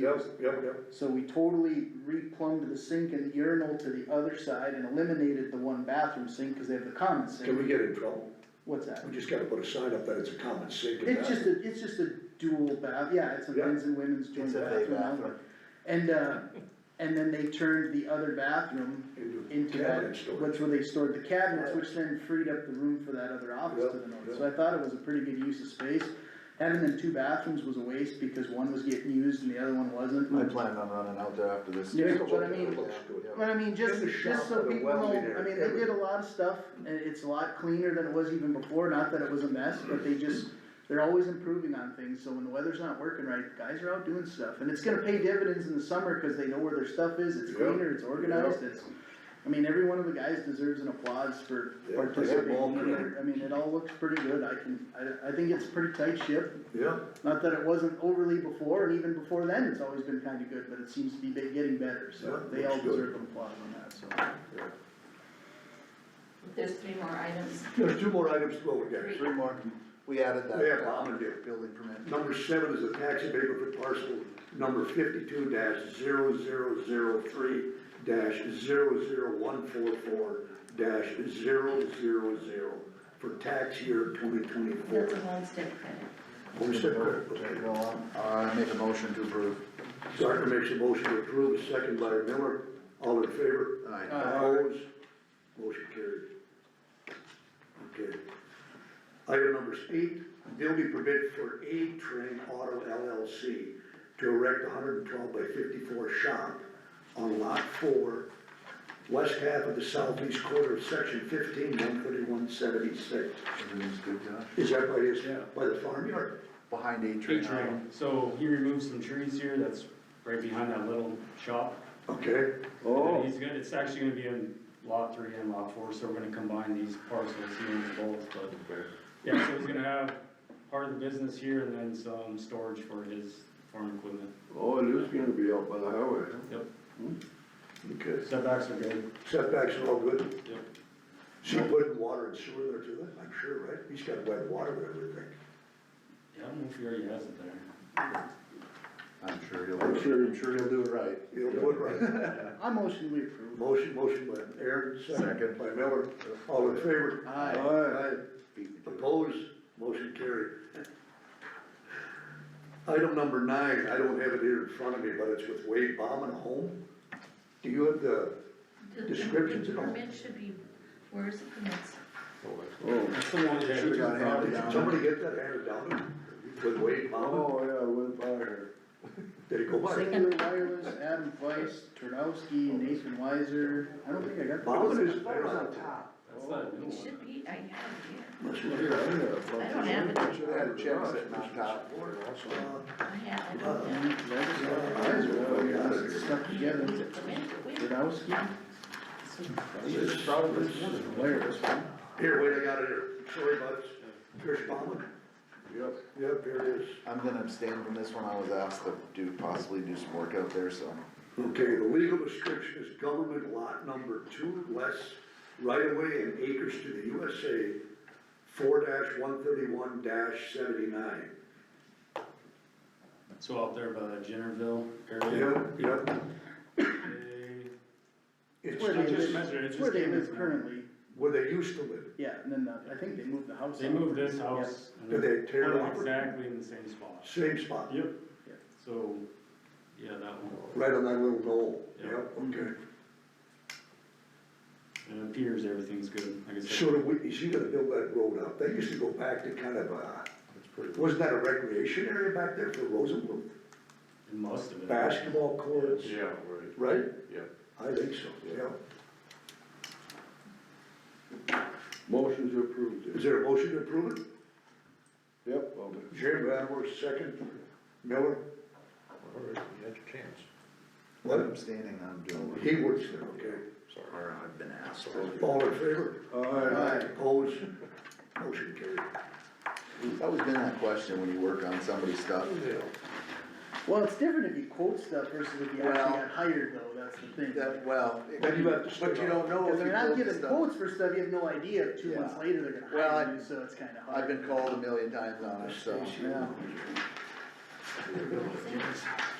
Yep, years. yep, yep. So we totally replumbed the sink and the urinal to the other side and eliminated the one bathroom sink, cause they have the common Can sink. we get in trouble? What's that? We just gotta put a sign up that it's a common sink. and It's just bathroom. a, it's just a dual bath, yeah, it's a Yeah. men's and women's joint It's a big bathroom. only. bathroom. And, uh, and then they turned the other bathroom Into into that, cabinet storage. which where they stored the cabinets, which then freed up the room for that other office to the Yep, north. So I thought it was a pretty good use of space. Having them two bathrooms was a waste because one was getting used and the other one wasn't. I planned on running out there after this. Yeah, but I mean- Yeah. But I mean, just, In the just shop so with a people well know, in there, I mean, they everything. did a lot of stuff, and it's a lot cleaner than it was even before, not that it was a mess, but they just, they're always improving on things, so when the weather's not working right, the guys are out doing stuff, and it's gonna pay dividends in the summer, cause they know where their stuff is, it's Yep. cleaner, it's organized, Yep. it's, I mean, every one of the guys deserves an applause for Yeah, they have all participating, in credit. it. I mean, it all looks pretty good, I can, I, I think it's a pretty tight ship, Yeah, not that it wasn't overly before, and even before then, it's always been kinda good, but it seems to be be- getting better, so Yeah, they all looks good. deserve an applause on that, so. There's three more items. there's two more items to go again. Three. Three more, we added that. Yeah, common deal. Building permit. Number seven is a tax abatement for parcel number fifty-two dash zero zero zero three dash zero zero one four four dash zero zero zero for tax year twenty twenty-four. That's a homestead credit. Take it all out. I Uh, make a motion to approve. Sartor makes a motion to approve, second by Miller, all in favor? Aye. Aye. Opposed? Motion carried. Okay. Item number eight, building permit for A Train Auto LLC to erect hundred and twelve by fifty-four shop on lot four, west half of the southeast quarter of section fifteen, one thirty-one seventy-six. Everything's good, Josh? Is that by his, Yeah. by the farmyard? Behind A Tree train. trail, so he removed some trees here, that's right behind that little shop. Okay. And Oh. then Oh, He's gonna, it's actually gonna be in lot three and lot four, so we're gonna combine these parcels, he owns both, but. Yeah, so he's gonna have part of the business here and then some storage for his farm equipment. Oh, it is gonna be out by the highway, huh? Okay. Setbacks are good, Setbacks are all good? yep. So you put water and sewer there too, I'm sure, right? He's got wet water there, I would think. Yeah, I don't know if he already has it there. I'm sure he'll, I'm sure- I'm sure he'll do it right. It'll put right. I motion we approve. Motion, motion by Aaron, second Second. by Miller. All in favor? Aye. Aye. Beat me to it. Opposed? Motion carried. Item number nine, I don't have it here in front of me, but it's with Wade Bauman Home. Do you have the, The- the Descriptions at all? Permit should be, where is the permits? Oh, That's the one that. Should've got handed did somebody get that handed down with Wade Bauman? oh, yeah, I went by here. Did it go by? Singular Wireless, Adam Weiss, Turdowski, Oh. Nathan Weiser, I don't think I got. Bauman is. That's that new It one. should be, I have it here. Must Yeah, be- I have I don't have it. I Should've had a check sitting on top. Uh, I have, I don't have it. Weiser, stuck together, There's a permit, but wait, Turdowski, It's probably Wireless. Here, wait, I got it here. Sorry, bud. Here's Bauman. Yep. Yep, here it is. I'm gonna abstain from this one, I was asked to do, possibly do some work out there, so. Okay, the legal description is government lot number two less right away and acres to the USA four one thirty-one seventy-nine. So out there by that Jennerville area. Yep, yep. They- It's Where they I not live, just just measured it, it where just they came live as. currently, where they used to live. yeah, and then the, I think they moved the house. They out. moved this house. and Did they tear it put it off? Exactly in the same spot. Same spot, Yep. Yeah. So, yeah, that one. right on that little knoll. Yeah. Yep, okay. And it appears everything's good, like I So said. do we, is he gonna build that road up? They used to go back to kind of, uh, wasn't that a recreation area back there for Rosenblum? It must have been. basketball courts, Yeah, right, right? yeah. I think so, yeah. Motion to approve, Is Dave. there a motion to approve it? Yep, I'll do. Jim Vanworth, second. Miller? All right, you had your chance. I'm What? abstaining, I'm doing work. He works there, okay. Or I've been asked. All in favor? Aye. Opposed? Motion carried. It's always been that question when you work on somebody's stuff. Well, it's different if you quote stuff versus if you Well- actually got hired though, that's the thing. That, well. Then you have to split But you don't know Cause if you they're not built the giving stuff. quotes for stuff, you have no idea if two Yeah. months later they're gonna Well, hire I- you, so it's kinda hard. I've been called a million times on it, so. Yeah.